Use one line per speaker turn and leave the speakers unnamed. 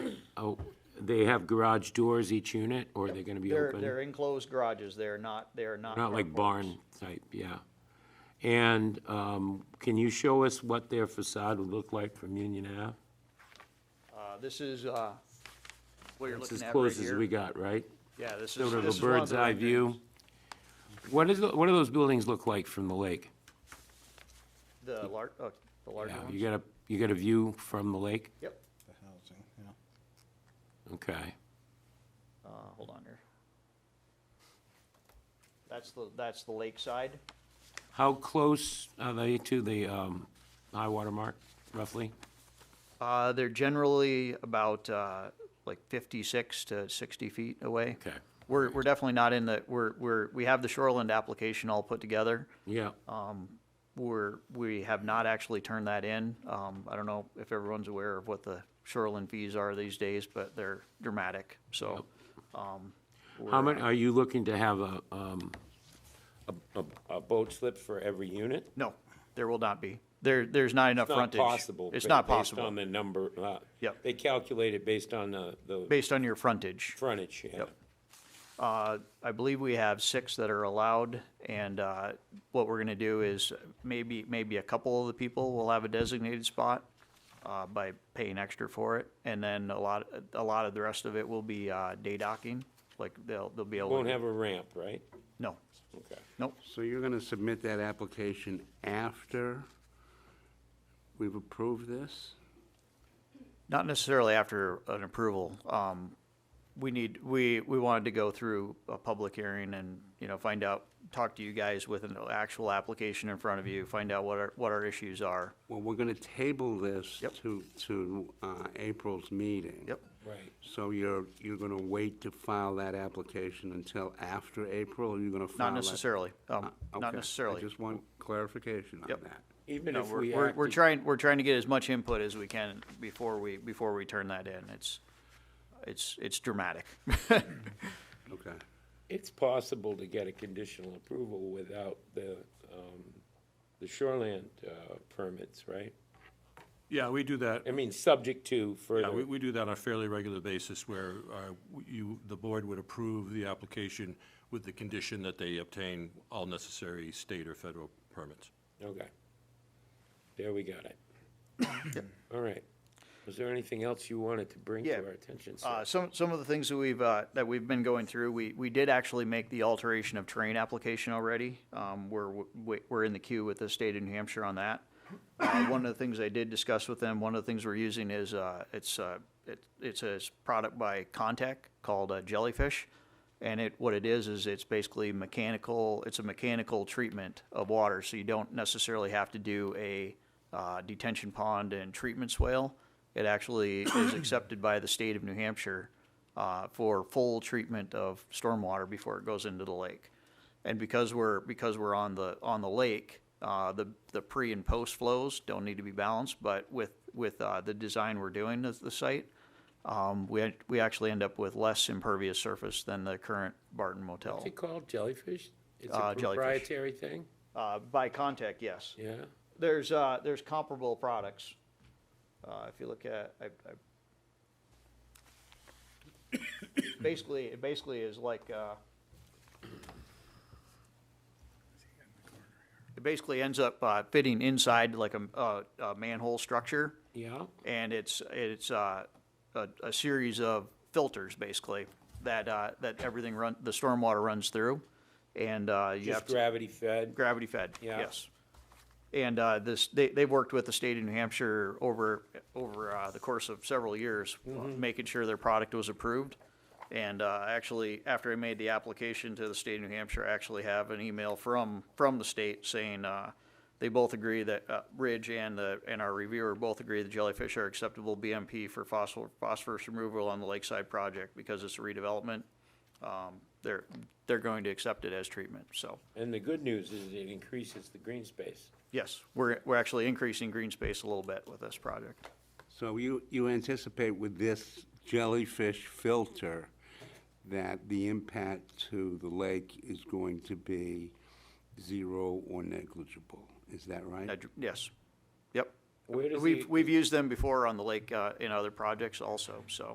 oh, they have garage doors each unit, or they're gonna be
They're,
open?
they're enclosed garages, they're not, they're not.
Not like
carports.
barn type, yeah. And um, can you show us what their facade would look like from Union Ave?
Uh, This is, uh, what you're
It's
looking
as
at right
close as
here.
we got, right?
Yeah, this is.
Sort of
this
a
is one
bird's
the
eye
renderings.
view. What is, the- what do those buildings look like from the lake?
The lar, uh, the larger
Yeah,
ones.
You got a, you got a view from the lake?
Yep,
The housing, yeah.
Okay.
uh, hold on here. That's the, that's the lakeside.
How close are they to the um, high water mark, roughly?
Uh, they're generally about, uh, like fifty-six to sixty feet away.
Okay.
We're, we're definitely not in the, we're, we're, we have the shoreland application all put together.
Yeah,
Um, We're, we have not actually turned that in. Um, I don't know if everyone's aware of what the shoreland fees are these days, but they're dramatic, so. um,
how
we're-
many, are you looking to have a, um, a- a, a boat slip for every unit?
No, there will not be. There, there's not
It's
enough
not
frontage.
possible.
It's
ba-
not
Based
possible,
on the number, uh.
Yep.
They calculate it based on the, the
based on your frontage.
frontage, yeah.
Yep. Uh, I believe we have six that are allowed, and uh, what we're gonna do is maybe, maybe a couple of the people will have a designated spot uh, by paying extra for it, and then a lot, a lot of the rest of it will be uh, day docking, like they'll, they'll be able.
Won't
to-
have a ramp, right?
No,
Okay.
nope,
So you're going to submit that application after we've approved this?
not necessarily after an approval. Um, We need, we, we wanted to go through a public hearing and, you know, find out, talk to you guys with an actual application in front of you, find out what our, what our issues are.
Well, we're going to table this
Yep.
to, to uh, April's meeting.
Yep.
Right.
So you're, you're going to wait to file that application until after April, or you're going to file
Not
that?
necessarily,
Uh,
um, not
okay. I
necessarily.
just want clarification on
Yep.
that.
Even
No,
if we
we're, we're, we're
acted-
trying, we're trying to get as much input as we can before we, before we turn that in. It's, it's, it's dramatic.
Okay.
It's possible to get a conditional approval without the, um, the shoreland, uh, permits, right?
Yeah, we do that,
I mean, subject to
yeah, we,
further,
we do that on a fairly regular basis where, uh, you, the board would approve the application with the condition that they obtain all necessary state or federal permits.
okay. There we got it. All right. Was there anything else you wanted to bring to
Yeah.
our attention, sir?
Uh, some, some of the things that we've, uh, that we've been going through, we, we did actually make the alteration of terrain application already. Um, we're, we- we're in the queue with the state of New Hampshire on that. Uh, one of the things I did discuss with them, one of the things we're using is, uh, it's, uh, it, it's a product by Contec called uh, Jellyfish. And it, what it is, is it's basically mechanical, it's a mechanical treatment of water, so you don't necessarily have to do a uh, detention pond and treatment swale. It actually is accepted by the state of New Hampshire uh, for full treatment of stormwater before it goes into the lake. And because we're, because we're on the, on the lake, uh, the, the pre and post flows don't need to be balanced, but with, with uh, the design we're doing of the site, um, we, act- we actually end up with less impervious surface than the current Barton Motel.
What's it called, jellyfish? It's a
Uh, jellyfish.
proprietary thing?
Uh, by contact, yes.
Yeah?
There's, uh, there's comparable products. Uh, if you look at, I, I. Basically, it basically is like, uh. It basically ends up, uh, fitting inside like a, a, a manhole structure.
Yeah?
and it's it's uh, a, a series of filters basically that uh, that everything run the stormwater runs through, and uh, you have
Just
to-
gravity fed?
gravity fed.
Yeah.
Yes. And uh, this they they've worked with the state of New Hampshire over over uh, the course of several years, uh,
Mm-hmm.
making sure their product was approved. And uh, actually, after I made the application to the state of New Hampshire, I actually have an email from from the state saying. Uh, they both agree that uh, Ridge and the and our reviewer both agree the jellyfish are acceptable BMP for fossil phosphorus removal on the lakeside project because it's a redevelopment. Um, they're they're going to accept it as treatment. So
And the good news is it increases the green space.
Yes, we're, we're actually increasing green space a little bit with this project.
So you, you anticipate with this jellyfish filter that the impact to the lake is going to be zero or negligible? Is that right?
Neg- Yes, yep.
Where does
We've,
the-
we've used them before on the lake, uh, in other projects also, so.